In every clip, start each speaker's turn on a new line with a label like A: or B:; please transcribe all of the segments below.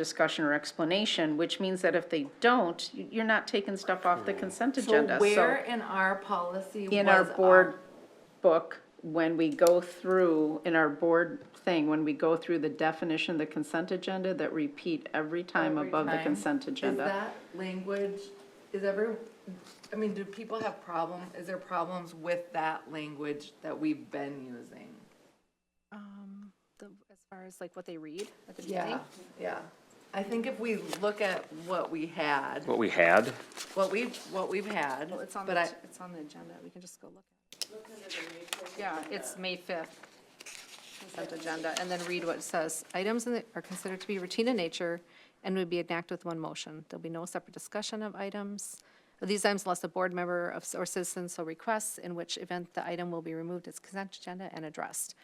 A: discussion or explanation, which means that if they don't, you- you're not taking stuff off the consent
B: So
A: agenda.
B: where in our policy
A: In our
B: was
A: board book, when we go through, in our board thing, when we go through the definition of the consent agenda, that repeat every time
B: Every
A: above the
B: time.
A: consent agenda.
B: Is that language, is every, I mean, do people have problem, is there problems with that language that we've been using?
C: Um, the, as far as like what they read at the
B: Yeah,
C: beginning?
B: yeah. I think if we look at what we had,
D: What we had,
B: what we've, what we've had,
C: Well, it's on,
B: but
C: the
B: I,
C: ag- it's on the agenda, we can just go look. at it. Yeah, it's May fifth, consent agenda, and then read what it says. Items in the- are considered to be routine in nature and would be enacted with one motion. There'll be no separate discussion of items, of these items unless a board member of, or citizen so requests, in which event the item will be removed as consent agenda and addressed.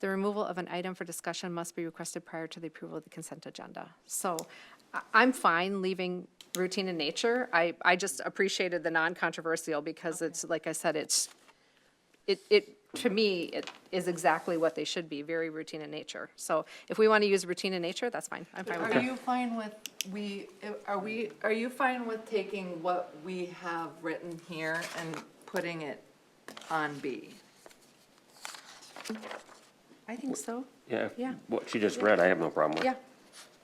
C: The removal of an item for discussion must be requested prior to the approval of the consent agenda. So I- I'm fine leaving routine in nature. I, I just appreciated the non-controversial because it's, like I said, it's, it, it, to me, it is exactly what they should be, very routine in nature. So if we want to use routine in nature, that's fine. I'm fine with
B: are
C: that.
B: you fine with, we, are we, are you fine with taking what we have written here and putting it on B?
C: I think so.
D: yeah,
C: Yeah.
D: what she just read, I have no problem with.
C: Yeah,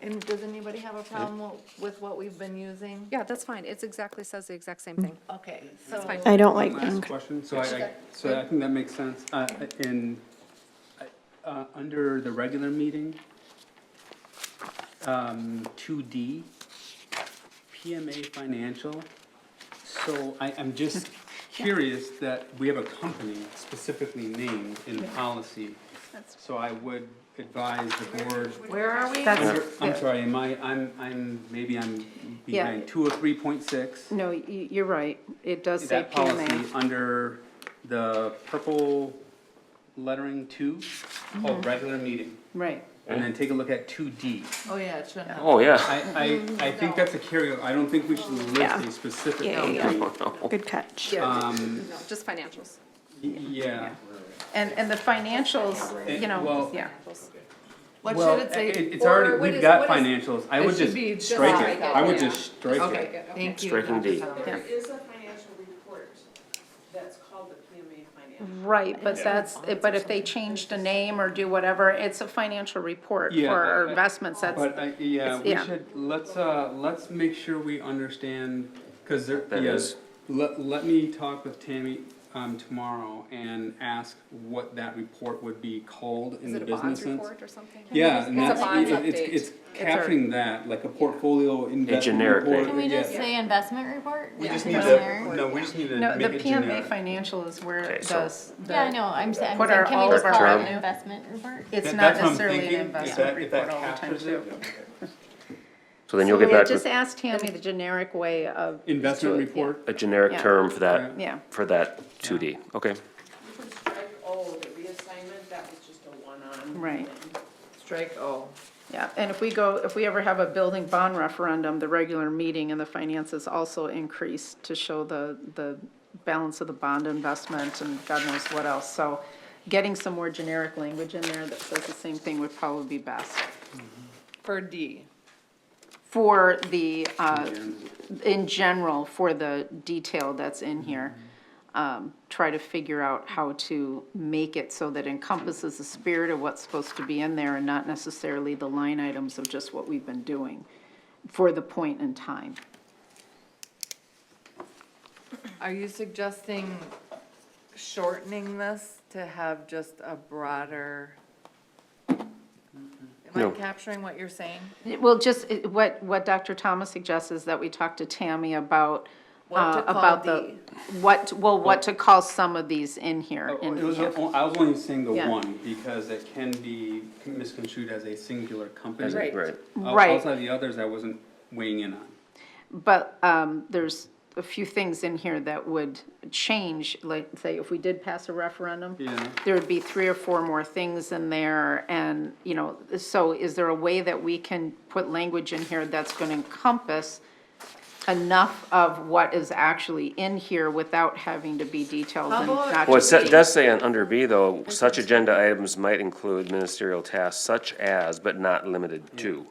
B: And does anybody have a problem with what we've been using?
C: yeah, that's fine. It's exactly, says the exact same thing.
B: Okay, so.
C: fine.
E: I don't like,
F: Last question, so I- I, so I think that makes sense. Uh, In, uh, under the regular meeting, um, 2D, PMA Financial. So I, I'm just curious that we have a company specifically named in policy. So I would advise the board,
B: Where are we?
A: That's,
F: under- I'm sorry, am I, I'm, I'm, maybe I'm
A: Yeah.
F: behind, 203.6
A: no, y- you're right, it does say
F: that policy
A: PMA.
F: under the purple lettering two,
B: Mm-hmm.
F: called regular meeting,
A: Right,
F: and then take a look at two D.
B: Oh, yeah, it shouldn't have.
D: Oh, yeah,
F: I, I,
B: Mm-hmm.
F: I think that's a carryover, I don't think we should
E: Yeah.
F: list a specific.
E: Yeah, yeah,
F: company.
E: good catch.
C: Yeah, no, just financials.
F: Y- Yeah.
A: and, and the financials,
F: It-
A: you know,
F: well-
A: yeah.
B: What
F: Well,
B: should it say?
F: It's
B: Or
F: already,
B: what
F: we've
B: is-
F: got
B: what is-
F: financials, I
B: It
F: would
B: should be
F: just
B: just
F: strike
B: strike
F: it,
B: it,
F: I would
B: yeah.
F: just strike it.
B: Okay, thank you.
D: Striking
B: Dr.
D: D.
B: Sullivan.
A: Yeah.
G: There is a financial report that's called the PMA
A: Mm-hmm.
G: financial.
A: Right, but that's, but if they change the name or do whatever, it's a financial report for
F: Yeah,
A: our
F: I- I-
A: investments, that's,
F: But I, yeah,
A: It's-
F: we
A: yeah.
F: should, let's, uh, let's make sure we understand, cause there,
D: That
F: yes.
D: is-
F: Let, let me talk with Tammy, um, tomorrow and ask what that report would be called in
C: Is
F: the
C: it a bonds
F: business sense.
C: report or something?
F: Yeah, and
C: It's a
F: that's,
C: bonds
F: it-
C: update.
F: it's, it's capturing that, like a portfolio investment.
D: generic
F: report,
D: name. Can
H: Can we just
F: yeah.
H: say investment report?
F: We just
H: Yeah.
F: need to, no, we just need to
A: no, the
F: make it
A: PMA
F: generic.
A: financial is where
D: Okay,
A: it
D: so-
A: does. the-
H: Yeah, I know, I'm saying,
A: What are
H: can
A: all
H: we just
A: of our
H: call it
A: revenue?
H: an investment report?
A: It's
F: That-
A: not
F: that's what I'm
A: necessarily
F: thinking,
A: an
F: if
A: investment
F: that- if that
A: report all the time
F: captures
A: too.
F: it,
D: so then you'll get
A: Yeah,
D: back
A: Just
D: with
A: ask Tammy the generic way of.
F: Investment
A: to it, yeah.
F: report,
D: a generic
A: Yeah.
D: term for that.
A: Yeah.
D: For that two D, okay.
G: You could strike O, the reassignment, that was just a one-on.
A: Right.
G: thing.
B: Strike O.
A: Yeah, and if we go, if we ever have a building bond referendum, the regular meeting and the finances also increase to show the, the balance of the bond investment and God knows what else. So getting some more generic language in there that says the same thing would probably be best
B: For D.
A: for the, uh, in general, for the detail that's in here.
F: Mm-hmm.
A: Um, try to figure out how to make it so that encompasses the spirit of what's supposed to be in there and not necessarily the line items of just what we've been doing for the point in time.
B: Are you suggesting shortening this to have just a broader? Am
D: No.
B: I capturing what you're saying?
A: Well, just, it- what, what Dr. Thomas suggests is that we talk to Tammy about,
B: What to
A: uh,
B: call
A: about the, what, well, what to call some of these in here.
F: Oh,
A: in
F: It was,
A: here.
F: o- I was only saying the
A: Yeah.
F: one, because it can be misconstrued as a singular company.
B: Right.
D: Right,
F: Outs-
A: Right.
F: Outside the others, I wasn't weighing in on.
A: But um, there's a few things in here that would change, like, say, if we did pass a referendum,
F: Yeah.
A: there would be three or four more things in there, and, you know, so is there a way that we can put language in here that's going to encompass enough of what is actually in here without having to be detailed and
B: How about-
A: not
D: well, it
A: just
D: sa-
A: be-
D: does say on under B though, such agenda items might include ministerial tasks such as, but not limited to.